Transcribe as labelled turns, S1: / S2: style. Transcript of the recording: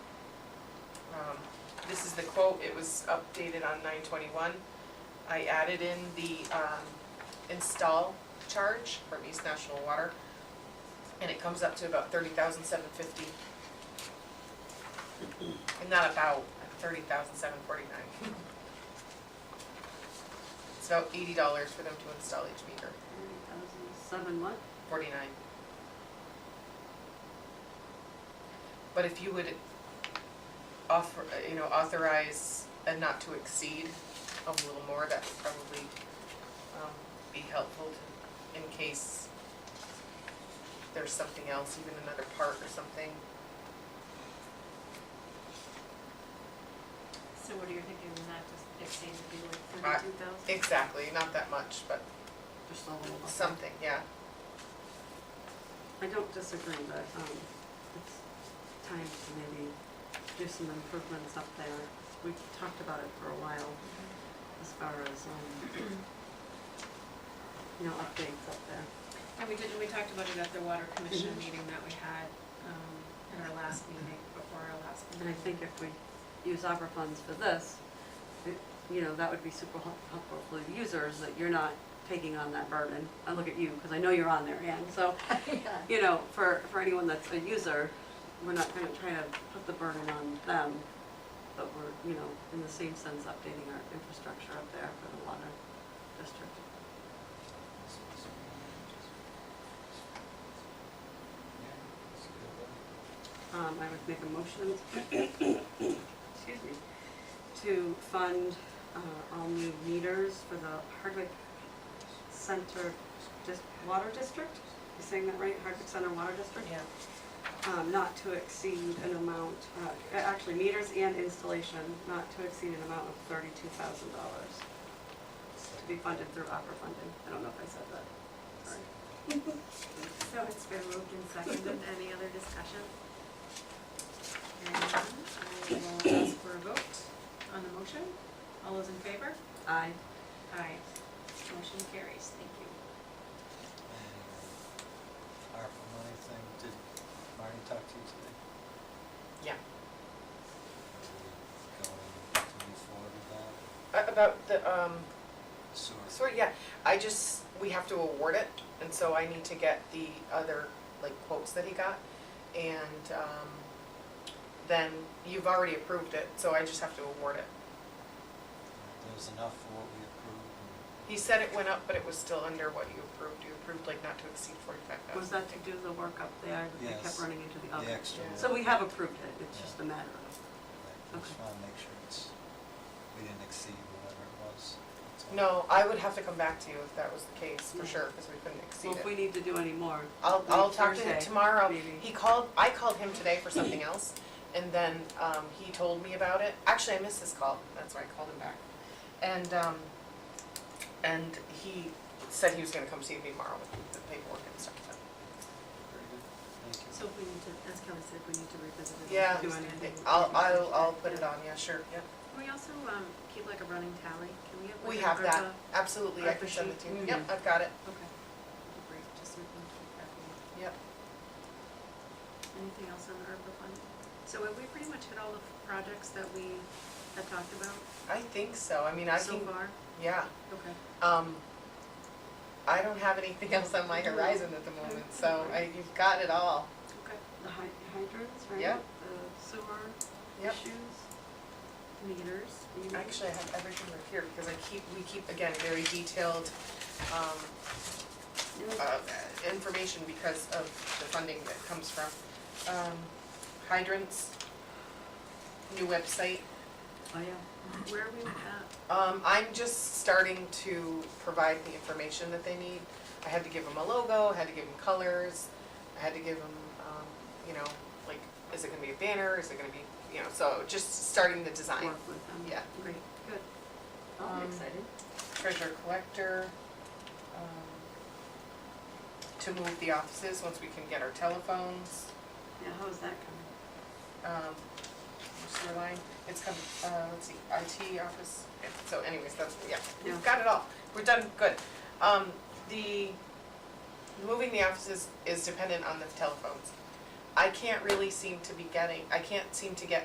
S1: Um, this is the quote, it was updated on nine twenty-one. I added in the, um, install charge from East National Water, and it comes up to about thirty thousand seven fifty. And not about, thirty thousand seven forty-nine. It's about eighty dollars for them to install each meter,
S2: Seven what?
S1: forty-nine. But if you would offer, uh, you know, authorize a not to exceed a little more, that would probably, um, be helpful to, in case there's something else, even another part or something.
S3: So what are you thinking, not just exceed to be like
S1: I-
S3: thirty-two thousand?
S1: Exactly, not that much, but
S2: Just a little. bit.
S1: something, yeah.
S2: I don't disagree, but, um, it's time to maybe do some improvements up there. We've talked about it for a while, as far as, um, you know, updates up there.
S3: And we did, we talked about it at the water commission meeting that we had, um, at our last meeting, before our last
S2: And I
S3: meeting.
S2: think if we use opera funds for this, it- you know, that would be super help- helpful for the users, that you're not taking on that burden. I look at you, because I know you're on there, Ann, so, you know, for, for anyone that's a user, we're not gonna try to put the burden on them, but we're, you know, in the same sense, updating our infrastructure up there for the water district. Um, I would make a motion, excuse me, to fund, uh, all new meters for the Hardwick Center Dis- Water District. You saying that right? Hardwick Center Water District?
S1: Yeah.
S2: Um, not to exceed an amount, uh, a- actually meters and installation, not to exceed an amount of thirty-two thousand dollars to be funded through opera funding. I don't know if I said that. Sorry.
S3: So it's been moved and seconded, any other discussion? And I will ask for a vote on the motion, all those in favor?
S2: Aye.
S3: Aye. Motion carries, thank you.
S4: ARPA money thing, did Marty talk to you today?
S1: Yeah.
S4: Are we Going to move forward with that?
S1: A- About the, um,
S4: Sewer.
S1: sort of, yeah, I just, we have to award it, and so I need to get the other, like, quotes that he got. And, um, then you've already approved it, so I just have to award it.
S4: There's enough for what we approved and
S1: He said it went up, but it was still under what you approved. You approved like not to exceed forty-five thousand.
S2: Was that to do the work up there? I kept
S4: Yes.
S2: running into the oven.
S4: the extra.
S1: Yeah.
S2: So we have approved it, it's just a matter of,
S4: I just
S2: Okay.
S4: wanna make sure it's, we didn't exceed whatever it was. That's all.
S1: No, I would have to come back to you if that was the case, for
S2: Yeah.
S1: sure, because we couldn't
S2: well,
S1: exceed it.
S2: if we need to do any more.
S1: I'll, I'll talk to him
S2: Thursday,
S1: tomorrow.
S2: maybe.
S1: He called, I called him today for something else, and then, um, he told me about it. Actually, I missed his call, that's why I called him back. And, um, and he said he was gonna come see me tomorrow with the paperwork and stuff, but-
S4: Very good. Thank you.
S3: So if we need to, as Kelly said, we need to revisit it.
S1: Yeah,
S3: Do anything.
S1: I'll, I'll, I'll put it on, yeah, sure, yeah.
S3: Can we also, um, keep like a running tally? Can we have like
S1: We
S3: an
S1: have that,
S3: ARPA?
S1: absolutely, I can send it to you. Yep, I've got it,
S3: Okay. That'd be Great, just so we can keep track of it.
S1: yep.
S3: Anything else on the ARPA fund? So have we pretty much hit all the projects that we have talked about
S1: I think so, I mean, I
S3: so
S1: can,
S3: far?
S1: yeah.
S3: Okay.
S1: Um, I don't have anything else on my horizon at the moment, so I, you've got it all.
S3: Okay.
S2: The hy- hydrants, right?
S1: Yeah.
S2: The sewer
S1: Yep.
S2: issues.
S3: Meters.
S2: you know.
S1: Actually, I have everything right here because I keep, we keep, again, very detailed, um, uh, information because of the funding that comes from, um, hydrants, new website.
S2: Oh, yeah.
S3: Where are we at?
S1: Um, I'm just starting to provide the information that they need. I had to give them a logo, I had to give them colors, I had to give them, um, you know, like, is it gonna be a banner, is it gonna be, you know, so just starting the design.
S2: Work with them.
S1: Yeah.
S3: Great. Good.
S2: Oh,
S1: Um,
S2: exciting.
S1: Treasure collector, um, to move the offices once we can get our telephones,
S2: Yeah, how's that coming?
S1: um, sewer line, it's come, uh, let's see, IT office, yeah, so anyways, that's, yeah,
S2: Yeah.
S1: we've got it all, we're done, good. Um, the, moving the offices is dependent on the telephones. I can't really seem to be getting, I can't seem to get